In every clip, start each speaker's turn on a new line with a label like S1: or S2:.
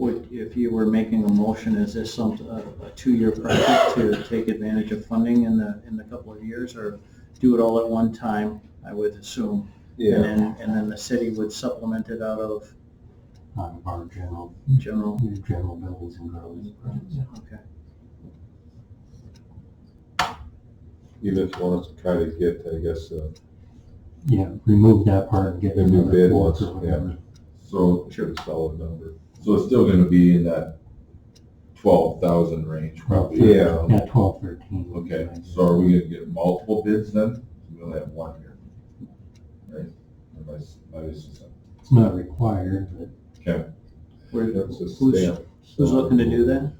S1: Would, if you were making a motion, is this some, uh, a, a two-year project to take advantage of funding in the, in the couple of years? Or do it all at one time, I would assume? And
S2: Yeah,
S1: then, and then the city would supplement it out of
S3: out of our general,
S1: general,
S3: general buildings and grounds.
S1: okay.
S2: you just want us to try to get, I guess, uh,
S3: Yeah, remove that part and get
S2: Remove
S3: another
S2: bid
S3: quote or
S2: once, yeah.
S3: whatever.
S4: So,
S2: we should a solid number.
S4: so it's still gonna be in that twelve thousand range probably?
S2: Yeah.
S3: uh, Yeah, twelve, thirteen. would be
S4: Okay,
S3: my guess.
S4: so are we gonna get multiple bids then? We only have one here. Right? Unless, unless,
S3: It's not required, but
S4: okay.
S1: Where-
S2: That's a
S1: Who's,
S2: stamp.
S1: who's looking to do that?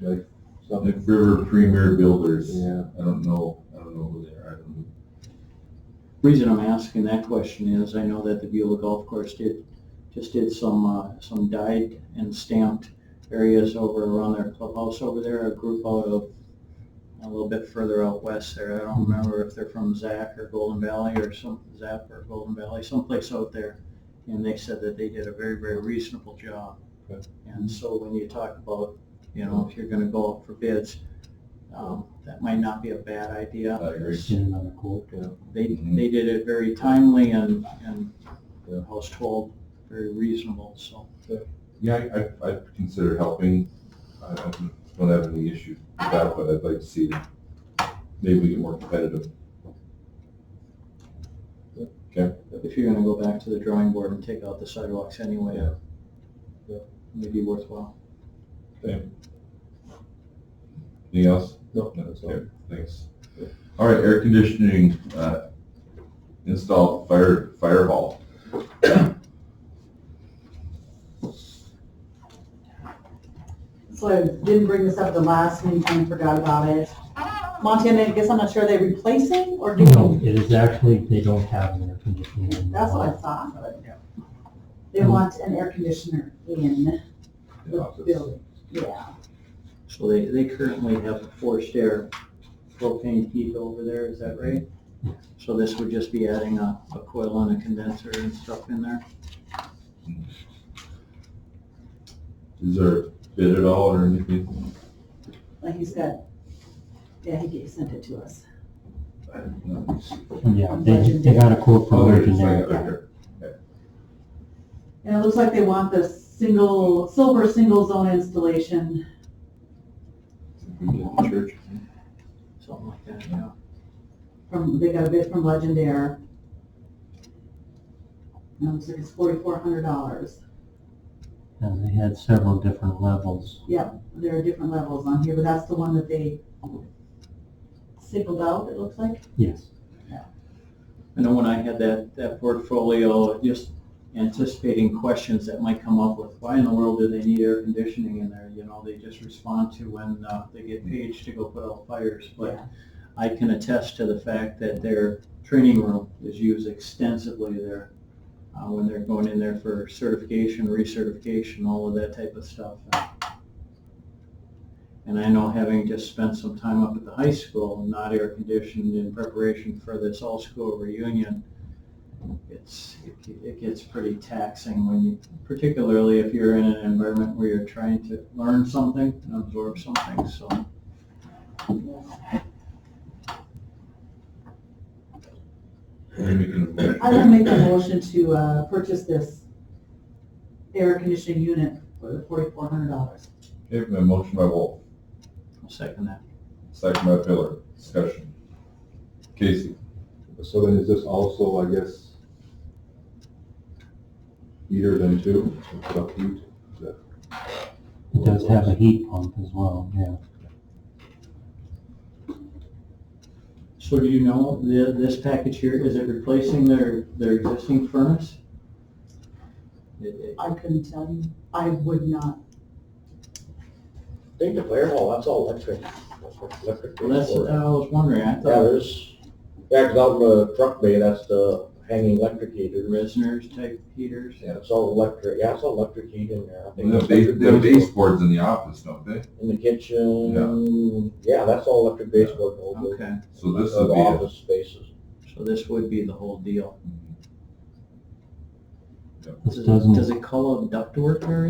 S2: Something,
S4: Like River Premier Builders,
S2: yeah,
S4: I don't know, I don't know who they are, I don't know.
S1: Reason I'm asking that question is I know that the Beulah Golf Course did, just did some, uh, some dyed and stamped areas over around their clubhouse over there, a group out of, a little bit further out west there. I don't remember if they're from Zac or Golden Valley or some, Zap or Golden Valley, someplace out there. And they said that they did a very, very reasonable job.
S2: Okay.
S1: And so when you talk about, you know, if you're gonna go out for bids, um, that might not be a bad idea.
S4: I agree.
S3: get another quote.
S1: They,
S4: Mhm.
S1: they did it very timely and, and
S2: Yeah.
S1: I was told very reasonable, so.
S4: Yeah, I, I, I'd consider helping. I don't, don't have any issue with that, but I'd like to see that maybe we get more competitive.
S1: If you're gonna go back to the drawing board and take out the sidewalks anyway,
S4: Yeah. Yeah.
S1: maybe worthwhile.
S4: Anything else?
S2: No.
S4: That's okay, thanks.
S2: Yeah.
S4: All right, air conditioning, uh, install at fire, fire hall.
S5: So I didn't bring this up the last meeting, forgot about it. Montana, I guess I'm not sure, are they replacing or
S3: No,
S5: doing?
S3: it is actually, they don't have an air conditioning. in the
S5: That's what I
S3: lot.
S5: thought, but they want an air conditioner in
S4: the
S5: the
S4: office.
S5: building, yeah.
S1: So they, they currently have a forced air propane heat over there, is that right? So this would just be adding a, a coil and a condenser and stuff in there?
S4: Is there a bid at all or anything?
S5: Like he's got, yeah, he gave- sent it to us.
S4: I don't know.
S3: Yeah, they, they got a quote from
S4: Oh, there it is,
S3: Virginia.
S4: right there.
S5: And it looks like they want the single, silver single zone installation.
S4: We did the Church.
S1: Something like that, yeah.
S5: from, they got a bid from Legendaire. And it looks like it's forty-four hundred dollars.
S3: And they had several different levels.
S5: Yep, there are different levels on here, but that's the one that they singled out, it looks like.
S3: Yes.
S1: I know when I had that, that portfolio, just anticipating questions that might come up with, why in the world do they need air conditioning in there? You know, they just respond to when uh, they get paged to go put out fires. But I can attest to the fact that their training room is used extensively there uh, when they're going in there for certification, recertification, all of that type of stuff. And I know having just spent some time up at the high school, not air conditioned in preparation for this all-school reunion, it's, it- it gets pretty taxing when you, particularly if you're in an environment where you're trying to learn something and absorb something, so.
S4: Maybe we can-
S5: I would make a motion to, uh, purchase this air conditioning unit for forty-four hundred dollars.
S4: Okay, my motion by Wolf,
S1: I'll second that.
S4: second by Pillar, discussion. Casey?
S2: so then is this also, I guess, heater then too, It's up heat? Is that-
S3: It does have a heat pump as well, yeah.
S1: So do you know, the, this package here, is it replacing their, their existing furnace? It- it-
S5: I couldn't tell you, I would not.
S6: I think the fire hall, that's all electric. That's electric.
S1: Well, that's, what I was wondering, I
S6: Yeah,
S1: thought
S6: there's, yeah, 'cause out in the truck bay, that's the hanging electric heater.
S1: Resner's type heaters.
S6: Yeah, it's all electric, yeah, it's all electric heat in there. I
S4: They
S6: think
S4: have
S6: it's
S4: base-
S6: electric
S4: they have
S6: baseboard
S4: baseboards in the office, don't they?
S6: In the kitchen, yeah, that's all electric baseboard, in the whole building,
S1: Okay,
S4: So this
S6: uh,
S4: would
S6: the
S4: be a
S6: office spaces.
S1: so this would be the whole deal.
S3: This
S1: Does it-
S3: doesn't
S1: Does it call out ductwork or